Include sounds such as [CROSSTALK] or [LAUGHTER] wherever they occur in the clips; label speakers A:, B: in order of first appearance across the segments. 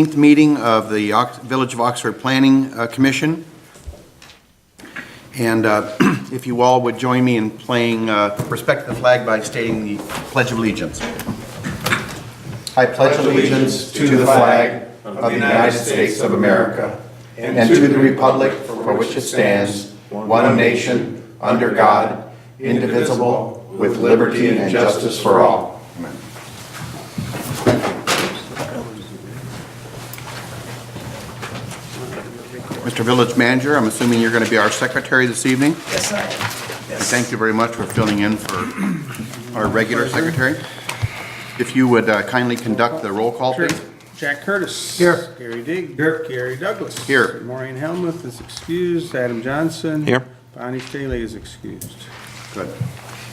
A: 16th meeting of the Ox- Village of Oxford Planning uh, Commission. And uh, [CLEARS THROAT] if you all would join me in playing uh, Respect the Flag by stating the Pledge of Allegiance.
B: I pledge allegiance to the flag of the United States of America and to the republic for which it stands, one nation, under God, indivisible, with liberty and justice for all.
A: Mr. Village Manager, I'm assuming you're going to be our secretary this evening?
C: Yes, I am.
A: And
C: Yes.
A: thank you very much for filling in for our regular secretary. If you would uh, kindly conduct the roll call, please.
D: Jack Curtis.
A: Here.
D: Gary Dig. Here. Gary Douglas.
A: Here.
D: Maureen Helmuth is excused. Adam Johnson. Here. Bonnie Staley is excused.
A: Good.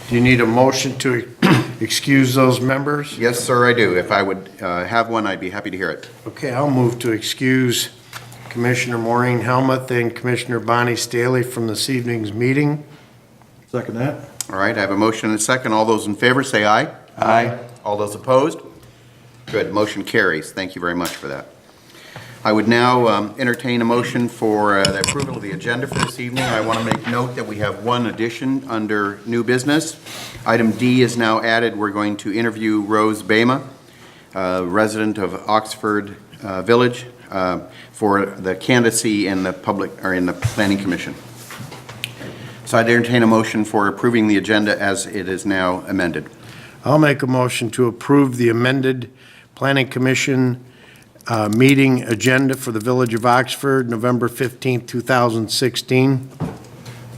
E: Do you need a motion to [CLEARS THROAT] excuse those members?
A: Yes, sir, I do. If I would uh, have one, I'd be happy to hear it.
E: Okay, I'll move to excuse Commissioner Maureen Helmuth and Commissioner Bonnie Staley from this evening's meeting.
F: Second that.
A: All right, I have a motion and a second. All those in favor, say aye. Aye. All those opposed? Good, motion carries. Thank you very much for that. I would now um, entertain a motion for uh, the approval of the agenda for this evening. I want to make note that we have one addition under new business. Item D is now added. We're going to interview Rose Bama, uh, resident of Oxford uh, Village, uh, for the candidacy in the public, or in the planning commission. So I'd entertain a motion for approving the agenda as it is now amended.
E: I'll make a motion to approve the amended Planning Commission uh, meeting agenda for the Village of Oxford, November 15th, 2016.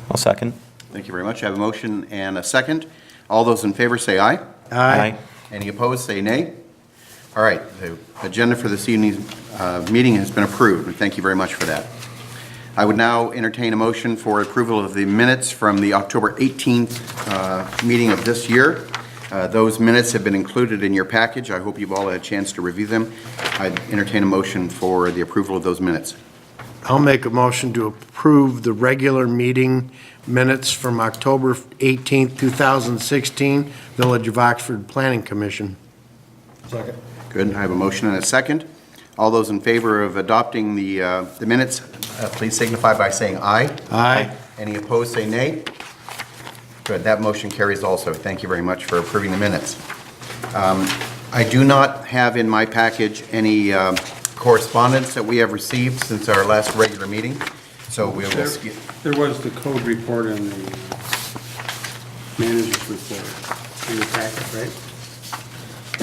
G: I'll second.
A: Thank you very much. I have a motion and a second. All those in favor say aye.
E: Aye.
A: Any opposed, say nay. All right, the agenda for this evening's uh, meeting has been approved, and thank you very much for that. I would now entertain a motion for approval of the minutes from the October 18th uh, meeting of this year. Uh, Those minutes have been included in your package. I hope you've all had a chance to review them. I'd entertain a motion for the approval of those minutes.
E: I'll make a motion to approve the regular meeting minutes from October 18th, 2016, Village of Oxford Planning Commission.
F: Second.
A: Good, I have a motion and a second. All those in favor of adopting the uh, the minutes, uh, please signify by saying aye.
E: Aye.
A: Any opposed, say nay. Good, that motion carries also. Thank you very much for approving the minutes. Um, I do not have in my package any um, correspondence that we have received since our last regular meeting, so we will skip.
D: There was the code report and the manager's report in the packet, right?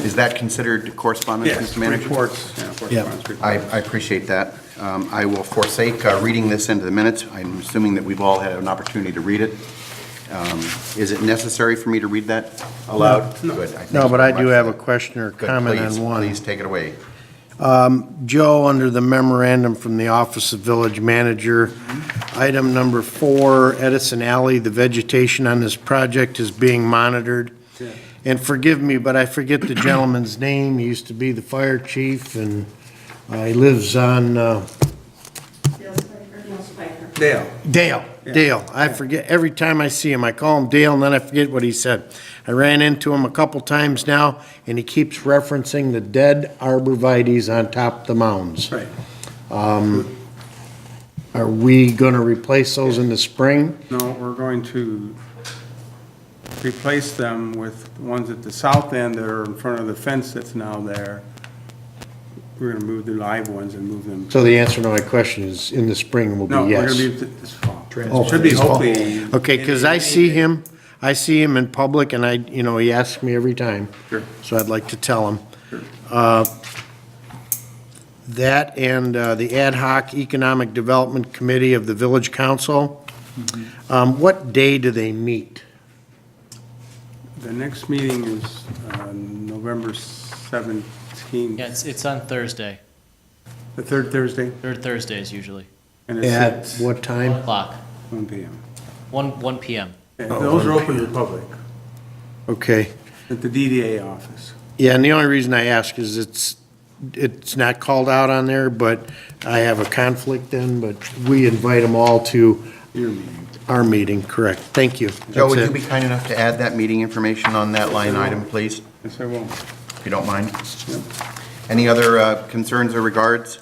A: Is that considered correspondence, Mr. Manager?
D: Reports, yeah, correspondence
A: I,
D: reports.
A: I appreciate that. Um, I will forsake uh, reading this into the minutes. I'm assuming that we've all had an opportunity to read it. Um, Is it necessary for me to read that aloud? Good, thank
E: No,
A: you
E: but
A: very
E: I do
A: much.
E: have a question or
A: Good,
E: comment
A: please,
E: on one.
A: Please take it away.
E: Joe, under the memorandum from the Office of Village Manager, item number four, Edison Alley, the vegetation on this project is being monitored. And forgive me, but I forget the gentleman's name. He used to be the fire chief, and uh, he lives on uh,
H: Dale Spiker? Dale Spiker.
D: Dale,
E: Dale, Dale. I forget, every time I see him, I call him Dale, and then I forget what he said. I ran into him a couple times now, and he keeps referencing the dead arborvitae's on top of the mounds.
D: right.
E: Are we going to replace those in the spring?
D: No, we're going to replace them with ones at the south end that are in front of the fence that's now there. We're gonna move the live ones and move them.
E: So the answer to my question is, in the spring will
D: No,
E: be
D: we're gonna
E: yes.
D: be th- this fall.
E: Oh,
D: Should be
E: this fall.
D: hopefully.
E: Okay, because I see him, I see him in public, and I, you know, he asks me every time.
D: Sure.
E: So I'd like to tell him. Uh, That and uh, the Ad hoc Economic Development Committee of the Village Council,
D: Mm-hmm.
E: Um, what day do they meet?
D: The next meeting is uh, November 17th,
I: Yeah, it's, it's on Thursday,
D: the third Thursday,
I: third Thursdays usually,
D: and it's
E: At
D: at
E: what time?
I: o'clock,
D: 1 PM.
I: one, one PM.
D: And
E: Oh,
D: Those are open to the public,
E: Okay.
D: at the DDA office.
E: Yeah, and the only reason I ask is it's, it's not called out on there, but I have a conflict then, but we invite them all to
D: Your meeting.
E: our meeting, correct? Thank you.
A: Joe,
E: That's
A: would you
E: it.
A: be kind enough to add that meeting information on that line item, please,
D: Yes, I will.
A: if you don't mind? Any other uh, concerns or regards?